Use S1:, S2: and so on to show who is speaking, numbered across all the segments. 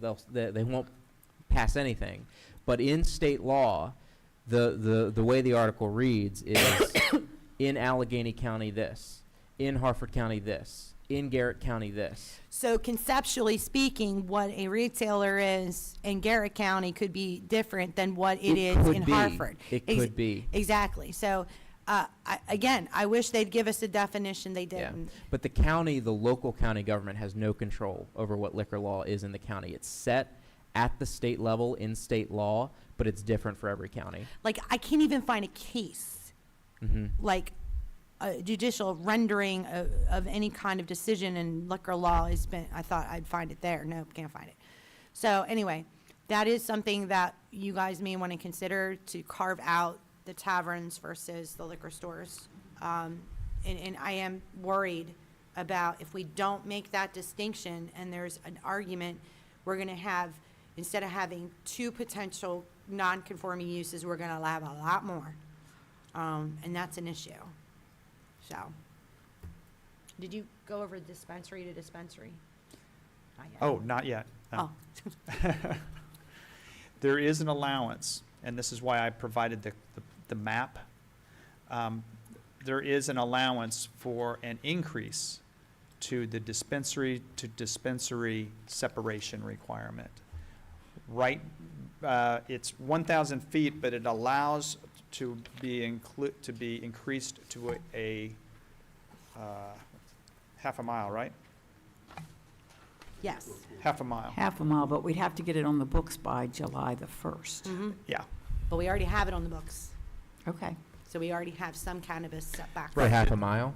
S1: they'll, they, they won't pass anything. But in state law, the, the, the way the article reads is in Allegheny County this, in Harford County this, in Garrett County this.
S2: So conceptually speaking, what a retailer is in Garrett County could be different than what it is
S1: could
S2: in
S1: be.
S2: Hartford.
S1: It
S2: Ex-
S1: could be.
S2: Exactly. So, uh, I, again, I wish they'd give us a definition. They
S1: Yeah.
S2: didn't.
S1: But the county, the local county government has no control over what liquor law is in the county. It's set at the state level in state law, but it's different for every county.
S2: Like, I can't even find a case,
S1: hmm
S2: like a judicial rendering of, of any kind of decision in liquor law has been, I thought I'd find it there. Nope, can't find it. So anyway, that is something that you guys may want to consider to carve out the taverns versus the liquor stores. Um, and, and I am worried about if we don't make that distinction and there's an argument, we're going to have, instead of having two potential non-conforming uses, we're going to have a lot more. Um, and that's an issue. So. Did you go over dispensary to dispensary? Not yet.
S3: Oh, not yet. no.
S2: Oh.
S3: There is an allowance, and this is why I provided the, the- the map. Um, There is an allowance for an increase to the dispensary to dispensary separation requirement. Right, uh, it's 1,000 feet, but it allows to be inclu, to be increased to a- a, uh, half a mile, right?
S2: Yes.
S3: Half a mile,
S4: half a mile, but we'd have to get it on the books by July the 1st.
S2: Mhm.
S3: yeah.
S2: But we already have it on the books.
S4: Okay.
S2: So we already have some cannabis setback.
S1: For
S3: Right.
S1: half a mile?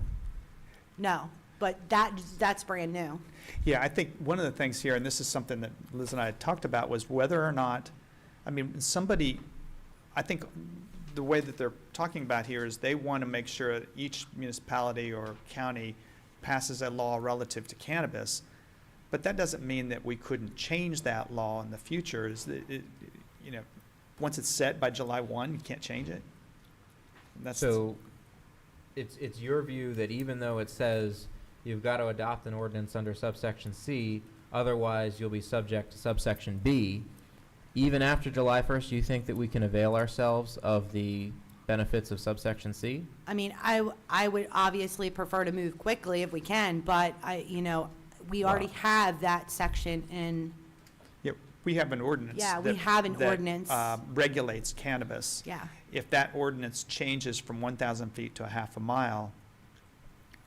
S2: No, but that, that's brand new.
S3: Yeah, I think one of the things here, and this is something that Liz and I had talked about, was whether or not, I mean, somebody, I think the way that they're talking about here is they want to make sure that each municipality or county passes a law relative to cannabis. But that doesn't mean that we couldn't change that law in the future, is that, it- you know, once it's set by July one, you can't change it. That's-
S1: So it's, it's your view that even though it says you've got to adopt an ordinance under subsection C, otherwise you'll be subject to subsection B, even after July 1st, you think that we can avail ourselves of the benefits of subsection C?
S2: I mean, I, w- I would obviously prefer to move quickly if we can, but I, you know, we already have that section in,
S3: Yeah, we have an ordinance.
S2: Yeah, we
S3: that-
S2: have an
S3: that,
S2: ordinance.
S3: uh, Regulates cannabis.
S2: yeah.
S3: if that ordinance changes from 1,000 feet to a half a mile,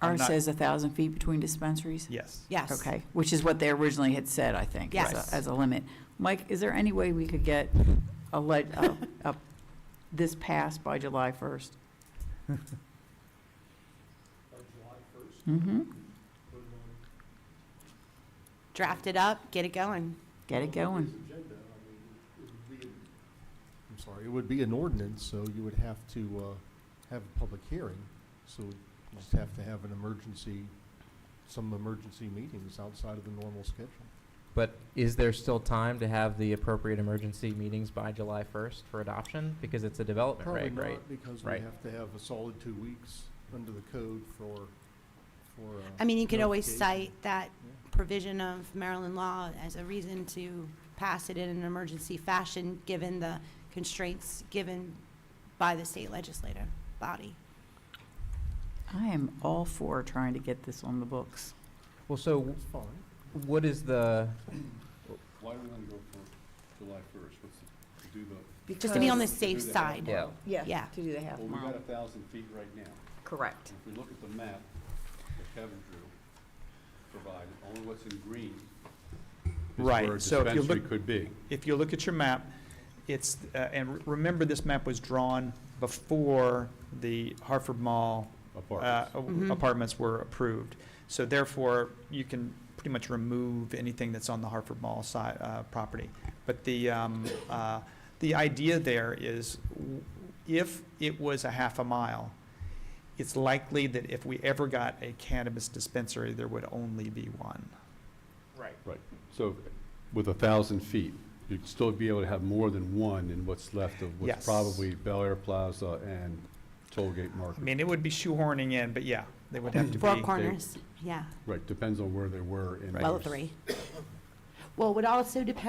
S3: I'm
S4: Ours
S3: not-
S4: says 1,000 feet between dispensaries?
S3: yes.
S2: Yes.
S4: Okay, which is what they originally had said, I think, as
S2: Yes.
S4: a, as a limit. Mike, is there any way we could get a, le- a- a- this passed by July 1st? By July 1st? Mm-hmm.
S2: Draft it up, get it going.
S4: Get it going.
S5: I'm sorry, it would be an ordinance, so you would have to uh, have a public hearing. So you just have to have an emergency, some emergency meetings outside of the normal schedule.
S1: But is there still time to have the appropriate emergency meetings by July 1st for adoption? Because it's a development
S5: Probably
S1: reg, right?
S5: not, because we
S1: Right.
S5: have to have a solid two weeks under the code for, for. uh,
S2: I mean, you could always
S5: notification.
S2: cite that
S5: Yeah.
S2: provision of Maryland law as a reason to pass it in an emergency fashion, given the constraints given by the state legislative body.
S4: I am all for trying to get this on the books.
S1: Well, so
S5: That's fine.
S1: what is the,
S6: Why do we want to go for July first? What's, the- do the,
S2: Just to be on the safe
S6: Because-
S2: side.
S1: yeah,
S2: yeah.
S4: To do the half
S6: well, we got
S4: mile.
S6: a thousand feet right now.
S4: Correct.
S6: If we look at the map that Kevin drew, provided, only what's in green is
S3: Right,
S6: where a
S3: so if you
S6: dispensary
S3: look-
S6: could be.
S3: If you look at your map, it's, uh, and re- remember, this map was drawn before the Hartford Mall uh,
S6: Apartments.
S3: apartments were approved. So therefore, you can pretty much remove anything that's on the Hartford Mall side, uh, property. But the, um, uh, the idea there is w- if it was a half a mile, it's likely that if we ever got a cannabis dispensary, there would only be one. Right.
S6: So with a thousand feet, you'd still be able to have more than one in what's left of
S3: Yes.
S6: what's probably Bel Air Plaza and Tollgate
S3: I
S6: Market.
S3: mean, it would be shoehorning in, but yeah, they would have to be.
S2: Four corners, yeah,
S6: Right, depends on where they were in.
S2: well,
S6: those-
S2: three. Well, it would also depend